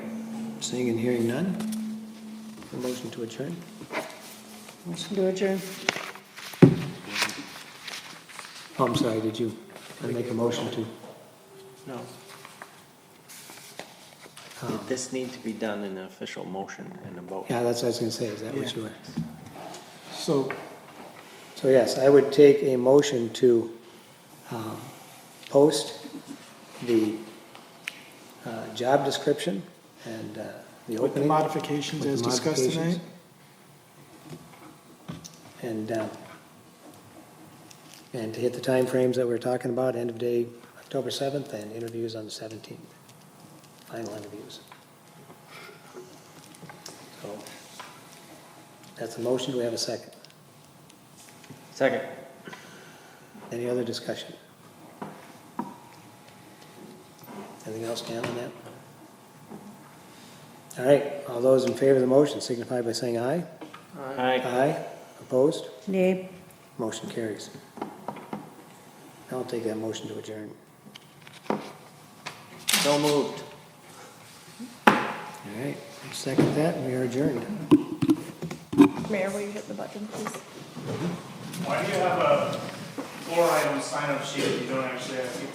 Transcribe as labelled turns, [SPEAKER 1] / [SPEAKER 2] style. [SPEAKER 1] Seeing and hearing none? A motion to adjourn?
[SPEAKER 2] Motion to adjourn.
[SPEAKER 1] Oh, I'm sorry, did you I make a motion to?
[SPEAKER 3] No,
[SPEAKER 1] um,
[SPEAKER 3] Did this need to be done in an official motion and a vote?
[SPEAKER 1] Yeah, that's what I was gonna say, is that what you were?
[SPEAKER 4] So,
[SPEAKER 1] So yes, I would take a motion to um, post the uh, job description and uh, the
[SPEAKER 4] with the
[SPEAKER 1] opening.
[SPEAKER 4] modifications
[SPEAKER 1] with
[SPEAKER 4] as
[SPEAKER 1] the
[SPEAKER 4] discussed tonight?
[SPEAKER 1] modifications. And, uh, and to hit the timeframes that we're talking about, end of day, October 7th, and interviews on the 17th, final interviews. So, that's the motion, do we have a second?
[SPEAKER 3] Second.
[SPEAKER 1] Any other discussion? Anything else, Dan, on that? All right, all those in favor of the motion signify by saying aye.
[SPEAKER 3] Aye.
[SPEAKER 1] Aye, opposed?
[SPEAKER 2] Nay.
[SPEAKER 1] Motion carries. I'll take that motion to adjourn.
[SPEAKER 3] So moved.
[SPEAKER 1] All right, second that, we are adjourned.
[SPEAKER 2] Mayor, will you hit the button, please?
[SPEAKER 5] Why do you have a four item sign up sheet if you don't actually have people?